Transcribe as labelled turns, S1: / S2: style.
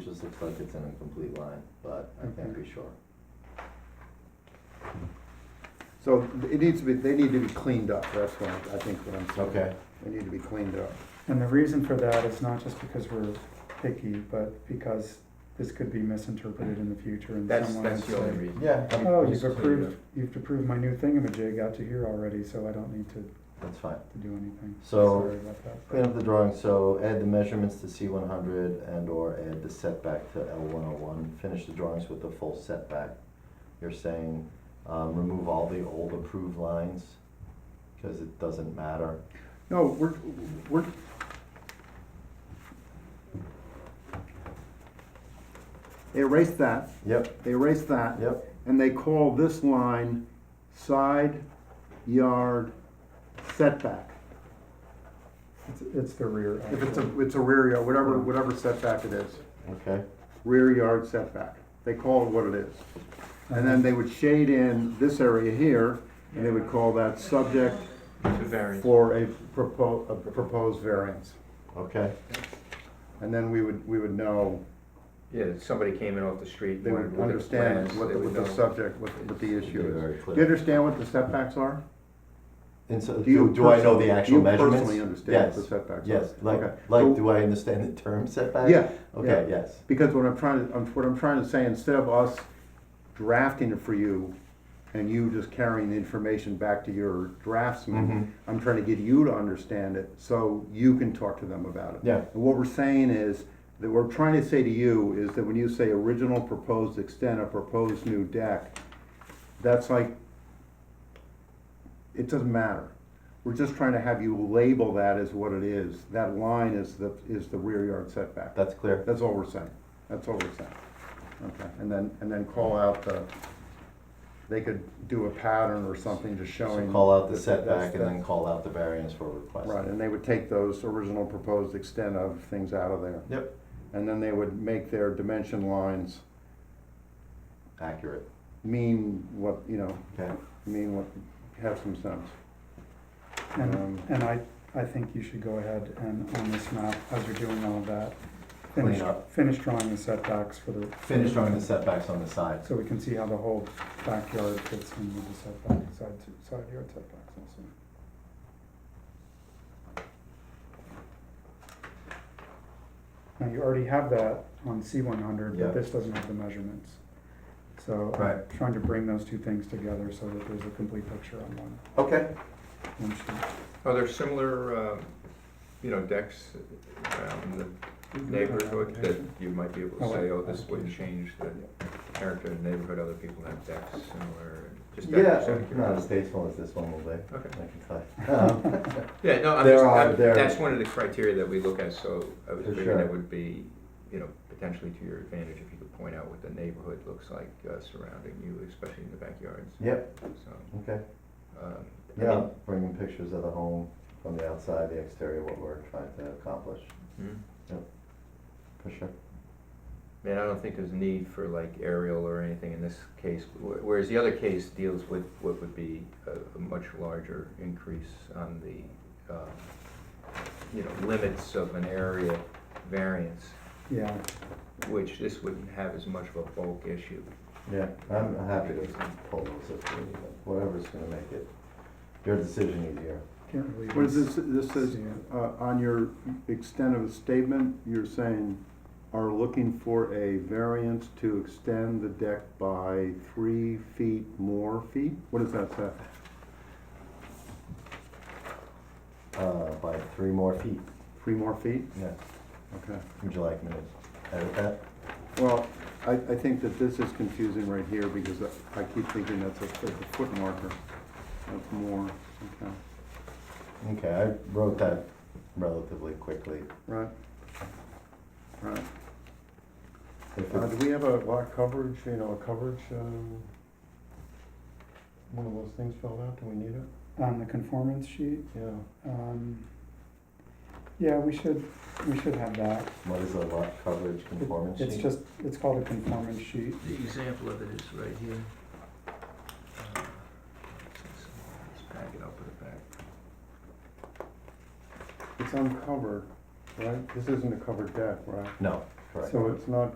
S1: this looks like it's an incomplete line, but I can't be sure.
S2: So it needs to be, they need to be cleaned up, that's what I think what I'm saying.
S1: Okay.
S2: They need to be cleaned up.
S3: And the reason for that is not just because we're picky, but because this could be misinterpreted in the future and
S4: That's,
S3: someone
S4: that's
S3: would
S4: the only
S3: say,
S4: reason.
S1: Yeah.
S3: oh, you've approved, you've approved my new thingamajig out to here already, so I don't need to,
S1: That's fine.
S3: to do anything.
S1: So-
S3: Sorry about that.
S1: Clean up the drawing, so add the measurements to C one hundred and or add the setback to L one oh one. Finish the drawings with the full setback. You're saying, um, remove all the old approved lines, cause it doesn't matter.
S2: No, we're, we're. They erased that,
S1: Yep,
S2: they erased that.
S1: yep,
S2: And they call this line side yard setback.
S3: It's, it's the rear.
S2: If it's
S3: actually.
S2: a, it's a rear yard, whatever, whatever setback it is,
S1: okay.
S2: rear yard setback. They call it what it is. And then they would shade in this area here, and they would call that subject
S4: To vary.
S2: for a proposed, a proposed variance.
S1: Okay,
S2: And then we would, we would know,
S4: Yeah, if somebody came in off the street.
S2: they would
S4: wanted to look at
S2: understand
S4: plans,
S2: what,
S4: they
S2: the-
S4: would
S2: what the
S4: know.
S2: subject, what, what the
S1: Should be
S2: issue is.
S1: very
S2: Do you
S1: clear.
S2: understand what the setbacks are?
S1: And so,
S2: Do you
S1: do, do I know
S2: personally-
S1: the
S2: do
S1: actual
S2: you
S1: measurements?
S2: personally understand what the setbacks
S1: Yes, yes,
S2: are?
S1: like,
S2: Okay. So-
S1: like, do I understand the term setback?
S2: Yeah,
S1: Okay, yes,
S2: Because what I'm trying to, I'm- what I'm trying to say, instead of us drafting it for you and you just carrying the information back to your
S1: Mhm.
S2: draftsman, I'm trying to get you to understand it so you can talk to them about it.
S1: Yeah.
S2: And what we're saying is, that we're trying to say to you is that when you say original proposed extent of proposed new deck, that's like, it doesn't matter. We're just trying to have you label that as what it is. That line is the, is the rear yard setback.
S1: that's clear.
S2: That's all we're saying, that's all we're saying. Okay, and then, and then call out the, they could do a pattern or something just
S1: So
S2: showing.
S1: call out the
S2: that- that's-
S1: setback and then
S2: that's-
S1: call out the variance for request.
S2: Right, and they would take those original proposed extent of things out of there.
S1: Yep,
S2: And then they would make their dimension lines
S1: accurate,
S2: mean what, you know,
S1: okay.
S2: mean what, have some sense.
S3: And,
S2: Um,
S3: and I, I think you should go ahead and on this map, as you're doing all of that,
S1: Clean
S3: finish,
S1: up.
S3: finish drawing the setbacks for the.
S1: Finish drawing the setbacks on the sides.
S3: So we can see how the whole backyard fits in with the setback, side, to- side yard setbacks also. Now, you already have that on C one hundred,
S1: Yeah.
S3: but this doesn't have the measurements. So I'm
S1: Right.
S3: trying to bring those two things together so that there's a complete picture on one,
S1: Okay.
S3: one sheet.
S4: Are there similar, um, you know, decks around the neighborhood that you might be able to
S3: Oh,
S4: say,
S3: I-
S4: oh, this would
S3: application.
S4: change the character of the neighborhood, other people have decks similar, just that.
S1: Yeah,
S4: just out of
S1: not as
S4: curiosity.
S1: tasteful as this one will be,
S4: Okay,
S1: I can tell. Um,
S4: yeah, no, I'm
S1: There
S4: just,
S1: are-
S4: I'm-
S1: there-
S4: that's one of the criteria that we look at, so I was
S1: For
S4: thinking
S1: sure.
S4: that would be, you know, potentially to your advantage if you could point out what the neighborhood looks like uh, surrounding you, especially in the backyards,
S1: Yep,
S4: so.
S1: okay.
S4: um, I
S1: Yeah,
S4: mean,
S1: bringing pictures of the home from the outside, the exterior, what we're trying to accomplish,
S4: hmm.
S1: for sure.
S4: Man, I don't think there's a need for like aerial or anything in this case, wh- whereas the other case deals with what would be a, a much larger increase on the, um, you know, limits of an area variance,
S3: Yeah,
S4: which this wouldn't have as much of a bulk issue.
S1: Yeah, I'm happy to pull those if we need them, whatever's gonna make it, your decision easier.
S3: can't really.
S2: What is this, this is,
S3: Yeah.
S2: uh, on your extent of a statement, you're saying are looking for a variance to extend the deck by three feet more feet? What does that say?
S1: Uh, by three more feet,
S2: Three more feet?
S1: yeah.
S2: Okay.
S1: Would you like me to edit that?
S2: Well, I, I think that this is confusing right here because I- I keep thinking that's a, that's a foot marker. That's more, okay,
S1: Okay, I wrote that relatively quickly.
S2: right? Right.
S1: If
S2: Uh,
S1: it's-
S2: do we have a lot coverage, you know, a coverage, um, one of those things filled out? Do we need it?
S3: On the conformance sheet,
S2: Yeah.
S3: Um, Yeah, we should, we should have that.
S1: What is a lot coverage
S3: It-
S1: conformance sheet?
S3: It's just, it's called a conformance sheet.
S4: The example of it is right here. Uh, Let's back it up with the back.
S2: It's uncovered, right? This isn't a covered deck, right?
S1: No, correct.
S2: So it's not